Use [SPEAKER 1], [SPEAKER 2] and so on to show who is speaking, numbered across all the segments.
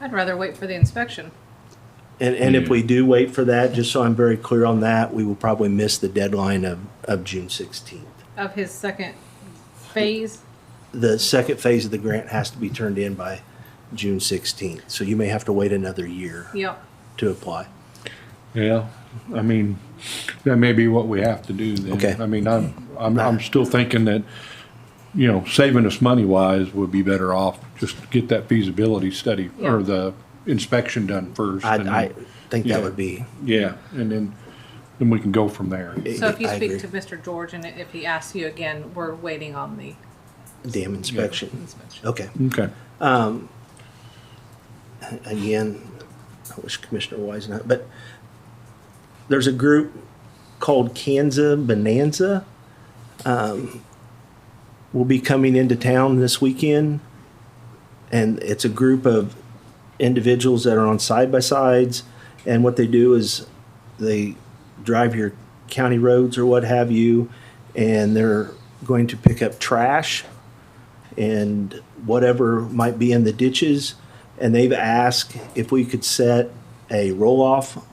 [SPEAKER 1] I'd rather wait for the inspection.
[SPEAKER 2] And, and if we do wait for that, just so I'm very clear on that, we will probably miss the deadline of, of June sixteenth.
[SPEAKER 1] of his second phase.
[SPEAKER 2] The second phase of the grant has to be turned in by June sixteenth, so you may have to wait another year
[SPEAKER 1] Yep.
[SPEAKER 2] to apply.
[SPEAKER 3] Yeah, I mean, that may be what we have to do then.
[SPEAKER 2] Okay.
[SPEAKER 3] I mean, I'm, I'm, I'm still thinking that, you know, saving us money wise would be better off just to get that feasibility study or
[SPEAKER 1] Yeah.
[SPEAKER 3] the inspection done first.
[SPEAKER 2] I,
[SPEAKER 3] and
[SPEAKER 2] I
[SPEAKER 3] then-
[SPEAKER 2] think that
[SPEAKER 3] Yeah.
[SPEAKER 2] would be,
[SPEAKER 3] Yeah, and then, then we can go from there.
[SPEAKER 1] So if you
[SPEAKER 2] I
[SPEAKER 1] speak
[SPEAKER 2] agree.
[SPEAKER 1] to Mr. George and if he asks you again, we're waiting on the
[SPEAKER 2] dam inspection.
[SPEAKER 1] inspection.
[SPEAKER 2] Okay.
[SPEAKER 3] Okay.
[SPEAKER 2] again, I wish Commissioner Wise not, but there's a group called Kansas Bonanza. Um, will be coming into town this weekend. And it's a group of individuals that are on side by sides. And what they do is they drive your county roads or what have you, and they're going to pick up trash and whatever might be in the ditches. And they've asked if we could set a roll off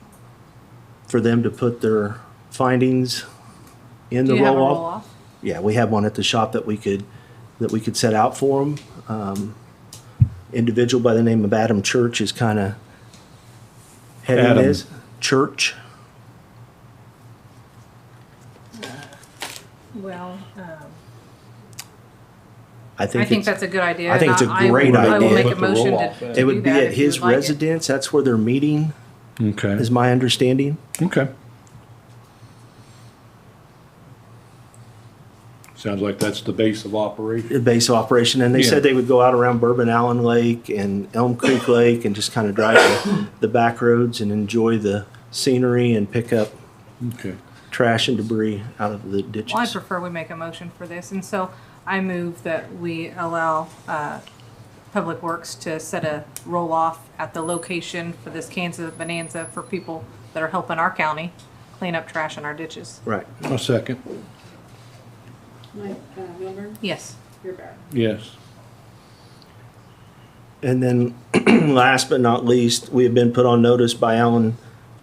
[SPEAKER 2] for them to put their findings in
[SPEAKER 1] Do
[SPEAKER 2] the
[SPEAKER 1] you have a
[SPEAKER 2] roll
[SPEAKER 1] roll
[SPEAKER 2] off.
[SPEAKER 1] off?
[SPEAKER 2] Yeah, we have one at the shop that we could, that we could set out for them. Um, individual by the name of Adam Church is kind of heading
[SPEAKER 3] Adam.
[SPEAKER 2] this. Church.
[SPEAKER 1] Well, um,
[SPEAKER 2] I think,
[SPEAKER 1] I think
[SPEAKER 2] it's-
[SPEAKER 1] that's a good idea.
[SPEAKER 2] I think
[SPEAKER 1] and
[SPEAKER 2] it's a
[SPEAKER 1] I- I
[SPEAKER 2] great
[SPEAKER 1] will- I will
[SPEAKER 2] idea.
[SPEAKER 1] make a
[SPEAKER 3] Put the
[SPEAKER 1] motion
[SPEAKER 3] roll-off
[SPEAKER 1] to.
[SPEAKER 3] in.
[SPEAKER 1] to
[SPEAKER 2] it
[SPEAKER 1] do
[SPEAKER 2] would be
[SPEAKER 1] that
[SPEAKER 2] at
[SPEAKER 1] if you
[SPEAKER 2] his
[SPEAKER 1] would like it.
[SPEAKER 2] residence. That's where they're meeting,
[SPEAKER 3] Okay,
[SPEAKER 2] is my understanding.
[SPEAKER 3] okay. Sounds like that's the base of operation.
[SPEAKER 2] The base of operation, and they
[SPEAKER 3] Yeah.
[SPEAKER 2] said they would go out around Bourbon Allen Lake and Elm Creek Lake and just kind of drive the, the back roads and enjoy the scenery and pick up
[SPEAKER 3] Okay.
[SPEAKER 2] trash and debris out of the ditches.
[SPEAKER 1] Well, I prefer we make a motion for this, and so I move that we allow uh, Public Works to set a roll-off at the location for this Kansas Bonanza for people that are helping our county clean up trash in our ditches.
[SPEAKER 2] right.
[SPEAKER 3] A second.
[SPEAKER 4] Mike uh, Milburn,
[SPEAKER 1] Yes.
[SPEAKER 4] you're back.
[SPEAKER 3] Yes.
[SPEAKER 2] And then, last but not least, we have been put on notice by Allen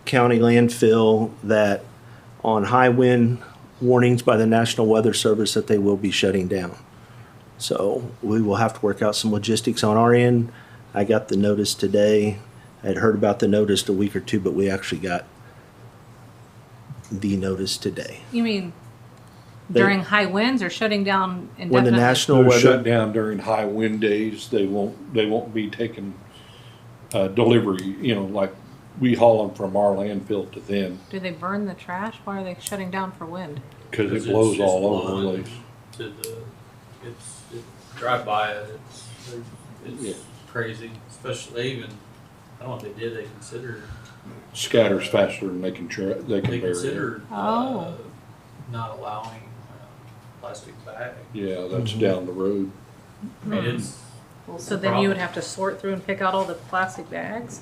[SPEAKER 2] County landfill that on high wind warnings by the National Weather Service that they will be shutting down. So we will have to work out some logistics on our end. I got the notice today. I had heard about the notice a week or two, but we actually got the notice today.
[SPEAKER 1] You mean
[SPEAKER 2] They-
[SPEAKER 1] during high winds or shutting down indefinitely?
[SPEAKER 2] When the National
[SPEAKER 3] They're shut
[SPEAKER 2] Weather,
[SPEAKER 3] down during high wind days, they won't, they won't be taking, uh, delivery, you know, like, we haul them from our landfill to them,
[SPEAKER 1] Do they burn the trash? Why are they shutting down for wind?
[SPEAKER 3] cause it
[SPEAKER 5] It's
[SPEAKER 3] blows
[SPEAKER 5] just
[SPEAKER 3] all over the
[SPEAKER 5] blowing
[SPEAKER 3] place.
[SPEAKER 5] To the, it's, it, drive by it, it's,
[SPEAKER 3] Yeah.
[SPEAKER 5] it's crazy, especially they even, I don't know if they did, they considered,
[SPEAKER 3] Scatters faster than they can try, they can bury
[SPEAKER 5] they
[SPEAKER 3] it.
[SPEAKER 5] considered, uh,
[SPEAKER 1] Oh.
[SPEAKER 5] not allowing, uh, plastic bag.
[SPEAKER 3] Yeah, that's down the road.
[SPEAKER 5] I mean, it's,
[SPEAKER 1] So then you would have to sort through and pick out all the plastic bags?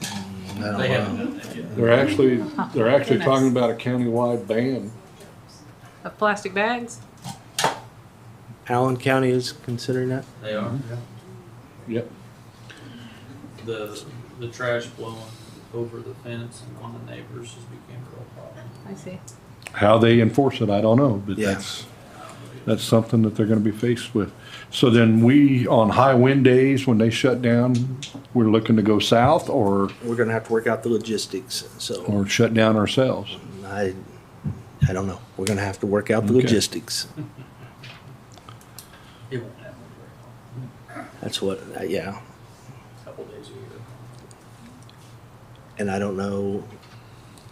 [SPEAKER 5] they haven't done that yet.
[SPEAKER 3] They're actually, they're actually
[SPEAKER 1] Goodness.
[SPEAKER 3] talking about a countywide ban.
[SPEAKER 1] Of plastic bags?
[SPEAKER 2] Allen County is considering that?
[SPEAKER 5] They are,
[SPEAKER 3] Yep,
[SPEAKER 5] the, the trash blowing over the fence and on the neighbors just became a real problem.
[SPEAKER 1] I see.
[SPEAKER 3] how they enforce it, I don't know, but
[SPEAKER 2] Yeah.
[SPEAKER 3] that's, that's something that they're gonna be faced with. So then we, on high wind days, when they shut down, we're looking to go south or?
[SPEAKER 2] We're gonna have to work out the logistics, so.
[SPEAKER 3] or shut down ourselves.
[SPEAKER 2] I, I don't know. We're gonna have to work out the
[SPEAKER 3] Okay.
[SPEAKER 2] logistics.
[SPEAKER 5] It won't happen for
[SPEAKER 2] That's what, uh, yeah.
[SPEAKER 5] a couple days a year.
[SPEAKER 2] And I don't know,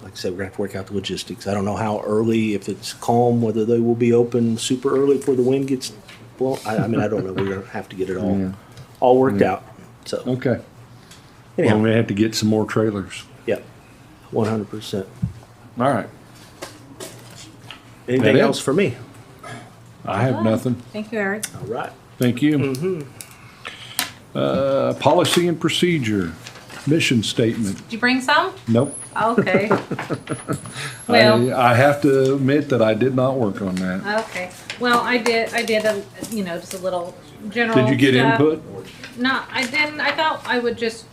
[SPEAKER 2] like I said, we're gonna have to work out the logistics. I don't know how early, if it's calm, whether they will be open super early before the wind gets, well, I, I mean, I don't know. We're gonna have to get it
[SPEAKER 3] Yeah.
[SPEAKER 2] all, all worked out. So
[SPEAKER 3] Okay. Well,
[SPEAKER 2] anyhow,
[SPEAKER 3] we have to get some more trailers.
[SPEAKER 2] yeah, one hundred percent.
[SPEAKER 3] All right.
[SPEAKER 2] Anything
[SPEAKER 3] it?
[SPEAKER 2] else for me?
[SPEAKER 3] I have nothing.
[SPEAKER 1] Oh, Thank you, Eric.
[SPEAKER 2] All right.
[SPEAKER 3] Thank you. Uh, policy and procedure, mission statement.
[SPEAKER 1] Did you bring some?
[SPEAKER 3] Nope.
[SPEAKER 1] Okay. Well,
[SPEAKER 3] I, uh, I have to admit that I did not work on that.
[SPEAKER 1] okay. Well, I did, I did, um, a you know, just a little general
[SPEAKER 3] Did you get
[SPEAKER 1] stuff.
[SPEAKER 3] input?
[SPEAKER 1] No, I didn't. I thought I would just